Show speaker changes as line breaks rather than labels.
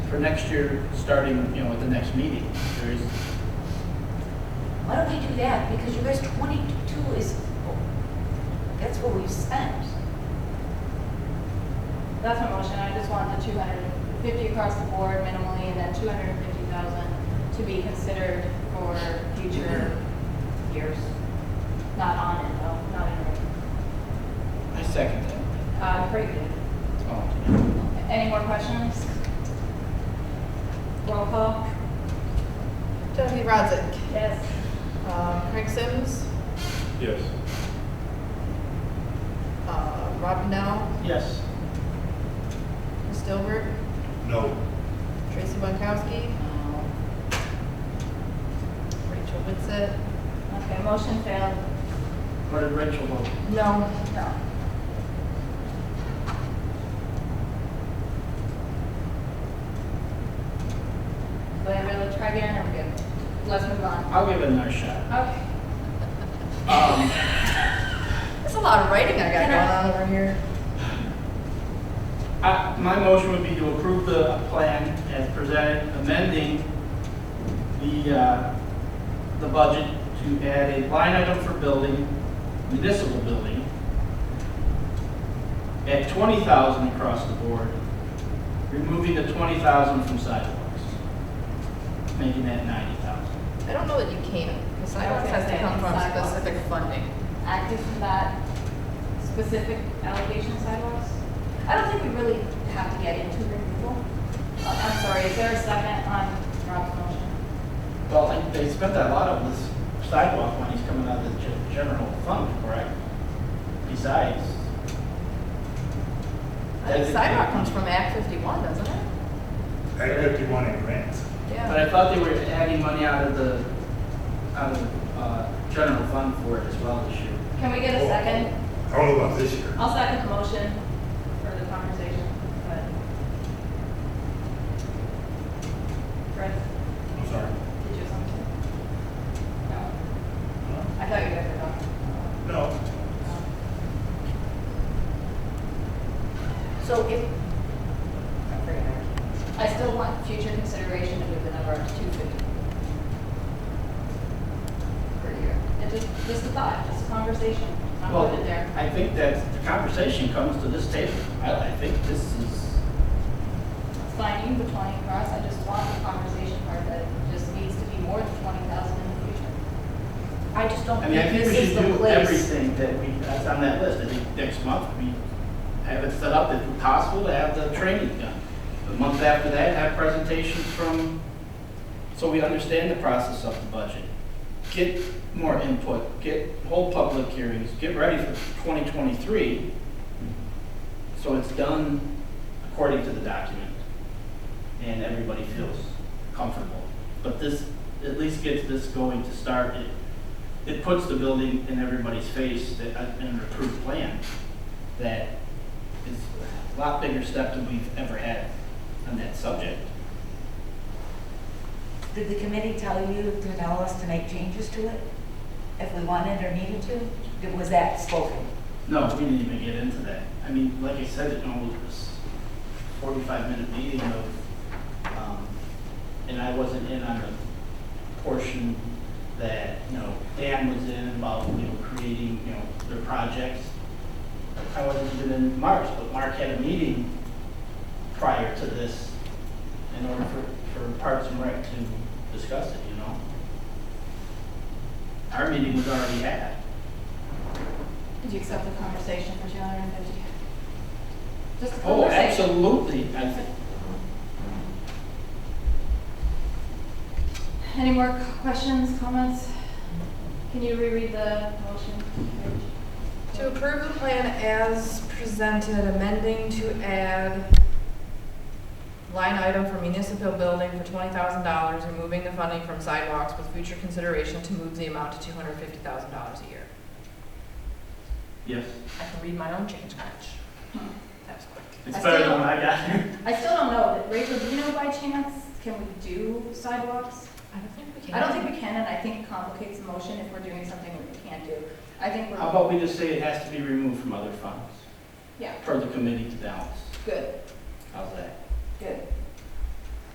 for next year, starting, you know, at the next meeting, there is,
Why don't we do that? Because you guys, twenty-two is, that's what we've spent.
That's my motion, I just want the two hundred and fifty across the board minimally, and then two hundred and fifty thousand to be considered for future years. Not on it, though, not in it.
I second that.
Uh, pretty good.
Oh,
Any more questions? Roll call?
Stephanie Rozick.
Yes.
Uh, Craig Sims.
Yes.
Uh, Rob Now.
Yes.
Chris Dilbert.
No.
Tracy Bonkowski. uh, Rachel Witsit.
Okay, motion failed.
What did Rachel vote?
No.
No. Do I really try again, or we good? Let's move on.
I'll give it another shot.
Okay.
Um,
There's a lot of writing I got
Can I-
going on over here.
I- My motion would be to approve the plan as presented, amending the, uh, the budget to add a line item for building, municipal building, at 20,000 across the board, removing the 20,000 from sidewalks, making that 90,000.
I don't know that you can, because sidewalks
Okay,
has to
okay,
come from
sidewalks.
specific funding.
active from that specific allocation sidewalks? I don't think we really have to get into removal. Uh, I'm sorry, is there a second on Rob's motion?
Well, and they spent a lot of this sidewalk money's coming out of the gen- general fund, correct? Besides.
I think
designated
sidewalk comes
money.
from Act 51, doesn't it?
Act fifty-one in grants.
But
Yeah.
I thought they were adding money out of the, out of, uh, general fund for it as well this year.
Can we get a second? Oh.
I don't know Oh, about this year.
I'll second the motion for the conversation, but. Chris,
I'm sorry.
did you have something? No, I thought you guys were done.
No.
So if, I forget, I
I still want future consideration to move the number up to two fifty.
can't, per year.
It just, just a thought, just a conversation, not
Well,
put it there.
I think that the conversation comes to this table. I, I think this is,
signing the twenty across, I just want the conversation part that just needs to be more than twenty thousand in the future.
I just don't
I mean, I
think
think
this
we
is
should
the
do
place.
everything that we, that's on that list. I think next month, we have it set up if possible to have the training done. The month after that, have presentations from, so we understand the process of the budget. Get more input, get, whole public hearings, get ready for 2023. So it's done according to the document and everybody feels comfortable. But this at least gets this going to start. It it puts the building in everybody's face that, uh, in an approved plan that is a lot bigger step than we've ever had on that subject.
Did the committee tell you to tell us to make changes to it? If we wanted or needed to? Did- Was that spoken?
No, we didn't even get into that. I mean, like I said, it almost was forty-five minute meeting of, um, and I wasn't in on the portion that, you know, Dan was in about, you know, creating, you know, their projects. I wasn't even in Mark's, but Mark had a meeting prior to this in order for, for Parks and Rec to discuss it, you know? Our meeting was already had.
Did you accept the conversation for two hundred and fifty? Just a
Oh,
conversation.
absolutely. I think
Any more c- questions, comments? Can you reread the motion? Rach?
To approve the plan as presented, amending to add line item for municipal building for twenty thousand dollars, removing the funding from sidewalks with future consideration to move the amount to two hundred fifty thousand dollars a year.
Yes,
I can read my own change match. Hmm. That was quick.
it's
I
better
still-
than what I got.
I still don't know, Rachel, do you know by chance, can we do sidewalks?
I don't think we can.
I don't think we can, and I think it complicates the motion if we're doing something we can't do. I think
How
we're,
about we just say it has to be removed from other funds
yeah,
for the committee to balance?
good,
How's that?
good.